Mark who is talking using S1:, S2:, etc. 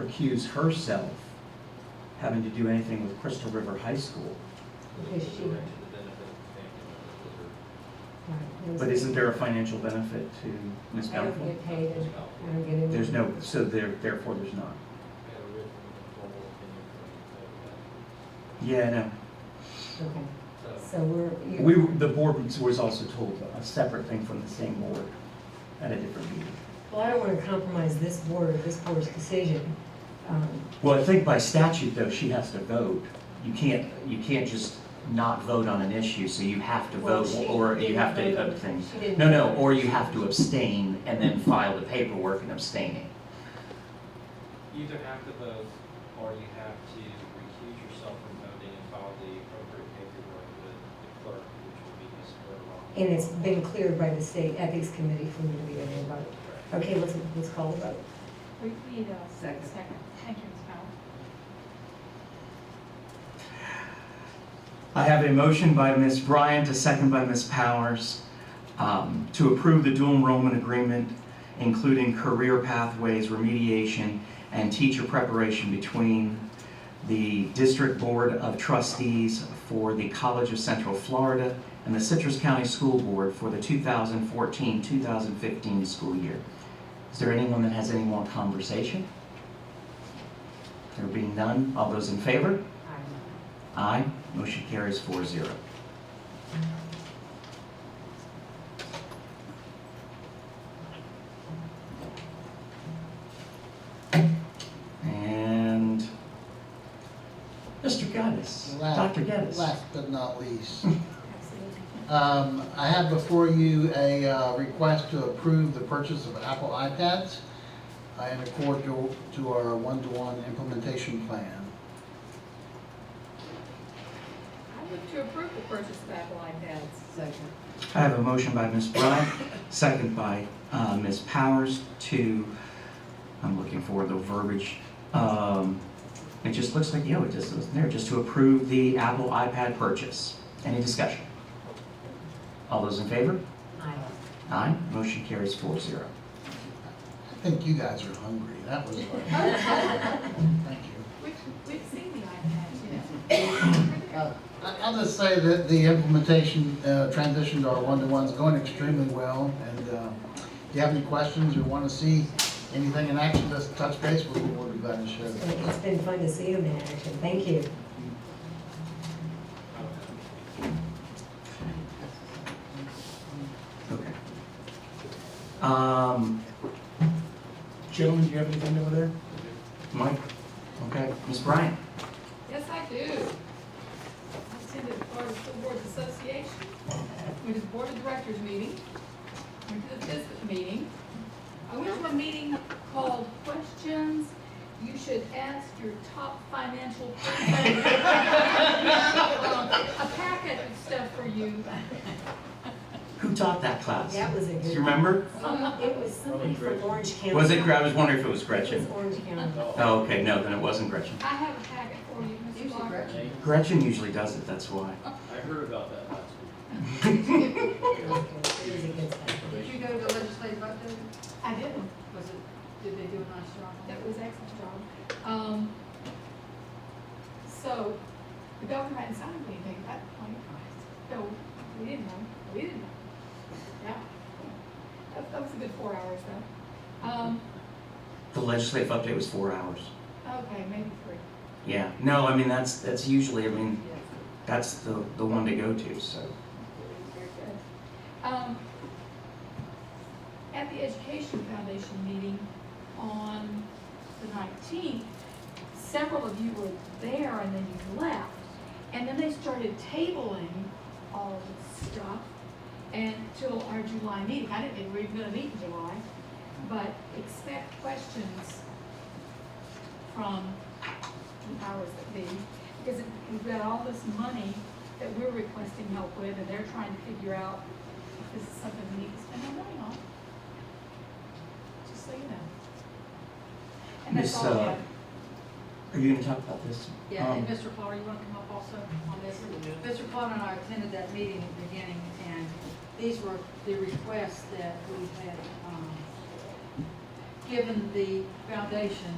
S1: recuse herself having to do anything with Crystal River High School.
S2: Because she-
S3: Right, to the benefit of the family members or-
S1: But isn't there a financial benefit to Ms.
S2: I don't
S1: Bountiful?
S2: get paid, and I don't get any.
S1: There's no, so there, therefore there's not.
S3: I had a written informal opinion from you, so,
S1: Yeah, no.
S2: Okay,
S3: uh, so,
S2: so we're. you-
S1: We, the board was also told a separate thing from the same board at a different meeting.
S2: Well, I don't want to compromise this board or this board's decision. Um,
S1: Well, I think by statute though, she has to vote. You can't, you can't just not vote on an issue, so you have to
S2: Well,
S1: vote
S2: she
S1: or you
S2: didn't
S1: have to
S2: vote.
S1: abstain.
S2: She didn't
S1: No, no,
S2: vote.
S1: or you have to abstain and then file the paperwork and abstaining.
S3: you either have to vote or you have to recuse yourself from voting and file the appropriate paperwork with the clerk, which will be Ms. Bergeron.
S2: And it's been cleared by the state ethics committee for me to be able to vote.
S3: Correct.
S2: Okay, let's, let's call the vote.
S4: We need a
S2: Second.
S4: second. Thank you, Ms. Powell.
S1: I have a motion by Ms. Bryant, a second by Ms. Powers, um, to approve the dual enrollment agreement, including career pathways, remediation, and teacher preparation between the District Board of Trustees for the College of Central Florida and the Citrus County School Board for the 2014-2015 school year. Is there anyone that has any more conversation? There being none, all those in favor? Aye, motion carries four zero. And Mr. Gaddis,
S5: Last-
S1: Dr. Gaddis.
S5: Last but not least,
S4: Absolutely.
S5: um, I have before you a uh, request to approve the purchase of Apple iPads uh, in accord to to our one-to-one implementation plan.
S4: I move to approve the purchase of Apple iPads. Second.
S1: I have a motion by Ms. Bryant, second by uh, Ms. Powers to, I'm looking for the verbiage. um, It just looks like, yeah, it just isn't there, just to approve the Apple iPad purchase. Any discussion? All those in favor?
S2: Aye.
S1: Aye. Motion carries four zero.
S5: I think you guys are hungry, that was, thank you.
S4: We've, we've seen the iPads, you know.
S5: Uh, I- I'll just say that the implementation, uh, transition to our one-to-one's going extremely well, and uh, if you have any questions or want to see anything in action, just touch base with me, we'll be glad to share
S2: So
S5: that.
S2: It's been fun to see them in action. Thank you.
S1: Okay. Um, Gentlemen, do you have anything over there? Mike? Okay, Ms. Bryant?
S4: Yes, I do. I attended the Florida School Boards Association, went to the Board of Directors meeting, went to the FISBIT meeting. I went to a meeting called Questions You Should Ask Your Top Financial Person. A packet of stuff for you.
S1: Who taught that class?
S2: That was a good.
S1: Do you remember?
S4: Um,
S2: Some- It was somebody from Orange County.
S1: Was it, I was wondering if it was
S2: It was
S1: Gretchen.
S2: Orange County.
S1: Oh, okay, no, then it wasn't Gretchen.
S4: I have a packet for you, Ms. Clark.
S3: Thank you.
S1: Gretchen usually does it, that's why.
S3: I heard about that last week.
S2: It was a good stuff.
S6: Did you go to legislative update?
S4: I didn't.
S6: Was it, did they do a nice job? on it?
S4: That was excellent, John. Um, so, the governor hadn't signed anything at that point, so we didn't know, we didn't know. Yeah. That, that was a good four hours though. Um,
S1: The legislative update was four hours.
S4: okay, maybe three.
S1: Yeah, no, I mean, that's, that's usually, I mean,
S6: Yes.
S1: that's the, the one to go to, so.
S4: Very good. Um, At the Education Foundation meeting on the nineteenth, several of you were there and then you left. And then they started tabling all of this stuff until our July meeting. I didn't think we were gonna meet in July, but expect questions from the powers that be. Because it- we've got all this money that we're requesting help with, and they're trying to figure out if this is something we need to spend our money on. Just so you know. And that's
S1: Miss,
S4: all I
S1: uh,
S4: have.
S1: Are you gonna talk about this?
S6: Yeah, and
S1: Um,
S6: Mr. Flower, you want to come up also on this? Mr. Flower and I attended that meeting at the beginning, and these were the requests that we had, um, given the foundation